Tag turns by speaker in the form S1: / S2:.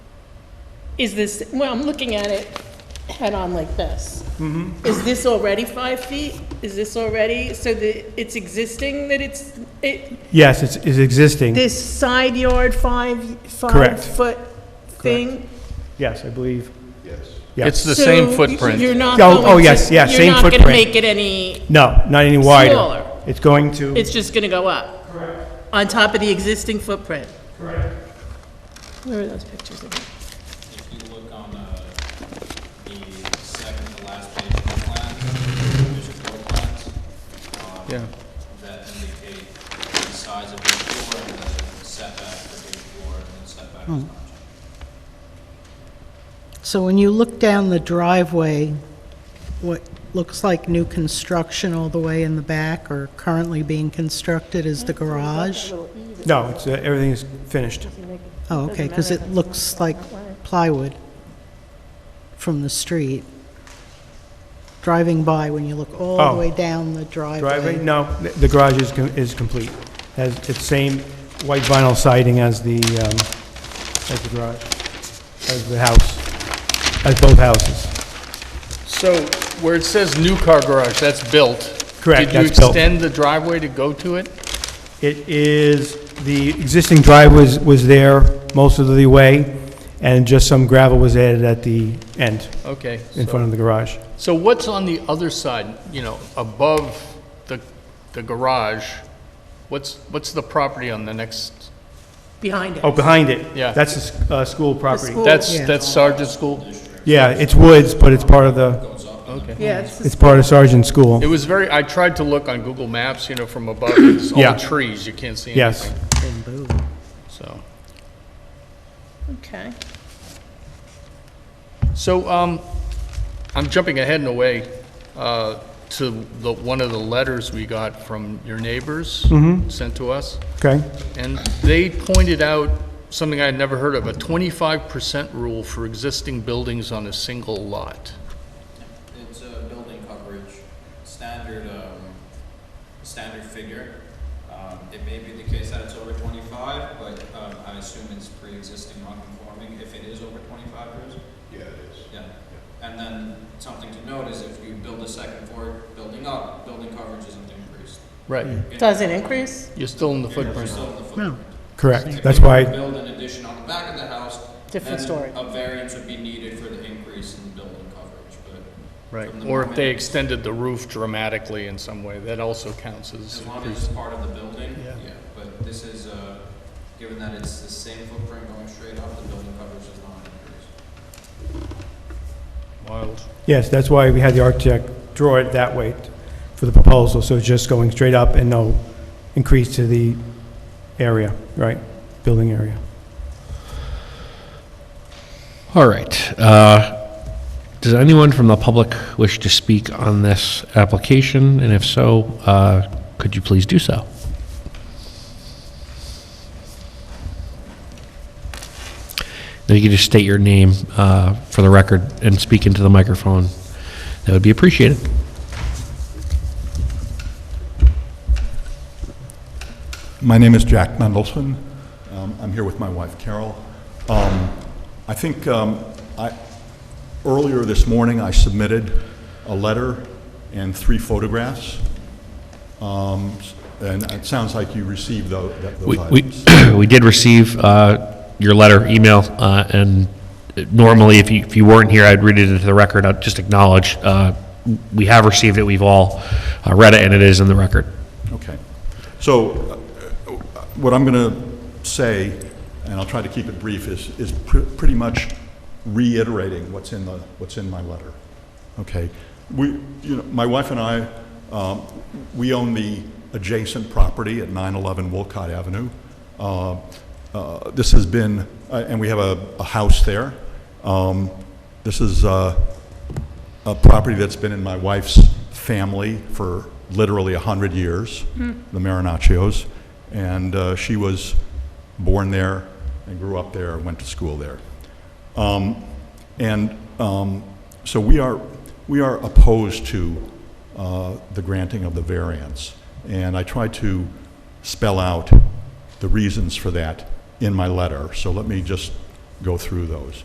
S1: is this, well, I'm looking at it head-on like this.
S2: Mm-hmm.
S1: Is this already five feet? Is this already, so the, it's existing that it's, it,
S2: Yes, it's, it's existing.
S1: this side yard five,
S2: Correct.
S1: five-foot thing?
S2: Yes, I believe.
S3: It's
S2: Yes.
S3: the same
S1: So
S3: footprint.
S1: You're not
S2: Oh,
S1: going to.
S2: oh, yes, yeah, same
S1: You're not
S2: footprint.
S1: gonna make it any,
S2: No, not any wider.
S1: Smaller.
S2: It's going to,
S1: it's just gonna go up? Correct. On top of the existing footprint? Correct. Where are those pictures again?
S4: If you look on uh, the second to last page of the plan, there's four plans
S3: Yeah.
S4: that indicate the size of each floor and the setback for each floor and the setback is not changed.
S5: So when you look down the driveway, what looks like new construction all the way in the back or currently being constructed is the garage?
S2: no, it's, uh, everything is finished.
S5: Oh, okay, because it looks like plywood from the street. Driving by, when you look all
S2: Oh.
S5: the way down the driveway.
S2: Driveway, no, th- the garage is, com- is complete. Has its same white vinyl siding as the, um, as the garage, as the house, as both houses.
S3: So where it says new car garage, that's built.
S2: Correct,
S3: Did you
S2: that's built.
S3: extend the driveway to go to it?
S2: It is, the existing drive was, was there most of the way, and just some gravel was added at the end,
S3: Okay.
S2: in front of the garage.
S3: So what's on the other side, you know, above the, the garage? What's, what's the property on the next?
S1: Behind it.
S2: Oh, behind it?
S3: Yeah.
S2: That's the s- uh, school property.
S1: school.
S3: That's,
S5: Yeah.
S3: that's Sergeant School?
S2: Yeah, it's woods, but it's part of the,
S3: Okay.
S1: Yeah, it's the
S2: it's part of Sergeant School.
S3: It was very, I tried to look on Google Maps, you know, from above, it's
S2: Yeah.
S3: all trees, you can't see
S2: Yes.
S3: anything, so.
S1: Okay.
S3: So, um, I'm jumping ahead in a way, uh, to the, one of the letters we got from your neighbors sent to us,
S2: Okay?
S3: and they pointed out something I had never heard of, a twenty-five percent rule for existing buildings on a single lot.
S4: It's a building coverage, standard, um, standard figure. Um, It may be the case that it's over twenty-five, but um, I assume it's pre-existing non-conforming if it is over twenty-five years.
S6: Yeah, it is.
S4: Yeah, and then something to note is if you build a second floor building up, building coverage isn't increased.
S3: Right,
S1: Does it increase?
S3: Mm. you're still in the
S4: You're
S3: footprint.
S4: still in the footprint.
S2: Correct. That's why,
S4: Build an addition on the back of the house.
S1: Different
S4: then
S1: story.
S4: A variance would be needed for the increase in building coverage, but
S3: Right, or if they extended the roof dramatically in some way, that also counts as
S4: as long as
S3: increase.
S4: it's part of the building,
S3: Yeah.
S4: yeah. But this is, uh, given that it's the same footprint going straight up, the building coverage is not increased.
S3: wild.
S2: yes, that's why we had the architect draw it that way for the proposal, so it's just going straight up and no increase to the area, right? Building area.
S7: All right. uh, Does anyone from the public wish to speak on this application? And if so, uh, could you please do so? If you could just state your name uh, for the record and speak into the microphone, that would be appreciated.
S6: My name is Jack Mendelson. Um, I'm here with my wife Carol. Um, I think um, I, earlier this morning, I submitted a letter and three photographs. Um, s- And it sounds like you received tho- that-
S7: We,
S6: those
S7: we
S6: items.
S7: we did receive uh, your letter, email, uh, and normally, if you, if you weren't here, I'd read it into the record, I'd just acknowledge, uh, we have received it, we've all uh, read it, and it is in the record.
S6: Okay. So uh, uh, what I'm going to say, and I'll try to keep it brief, is, is pr- pretty much reiterating what's in the, what's in my letter. Okay? We, you know, my wife and I, um, we own the adjacent property at 911 Wolcott Avenue. Uh, uh, This has been, uh, and we have a, a house there. Um, This is, uh, a property that's been in my wife's family for literally 100 years, the Marinaccios. And uh, she was born there and grew up there, went to school there. Um, And um, so we are, we are opposed to uh, the granting of the variance. And I tried to spell out the reasons for that in my letter, so let me just go through those.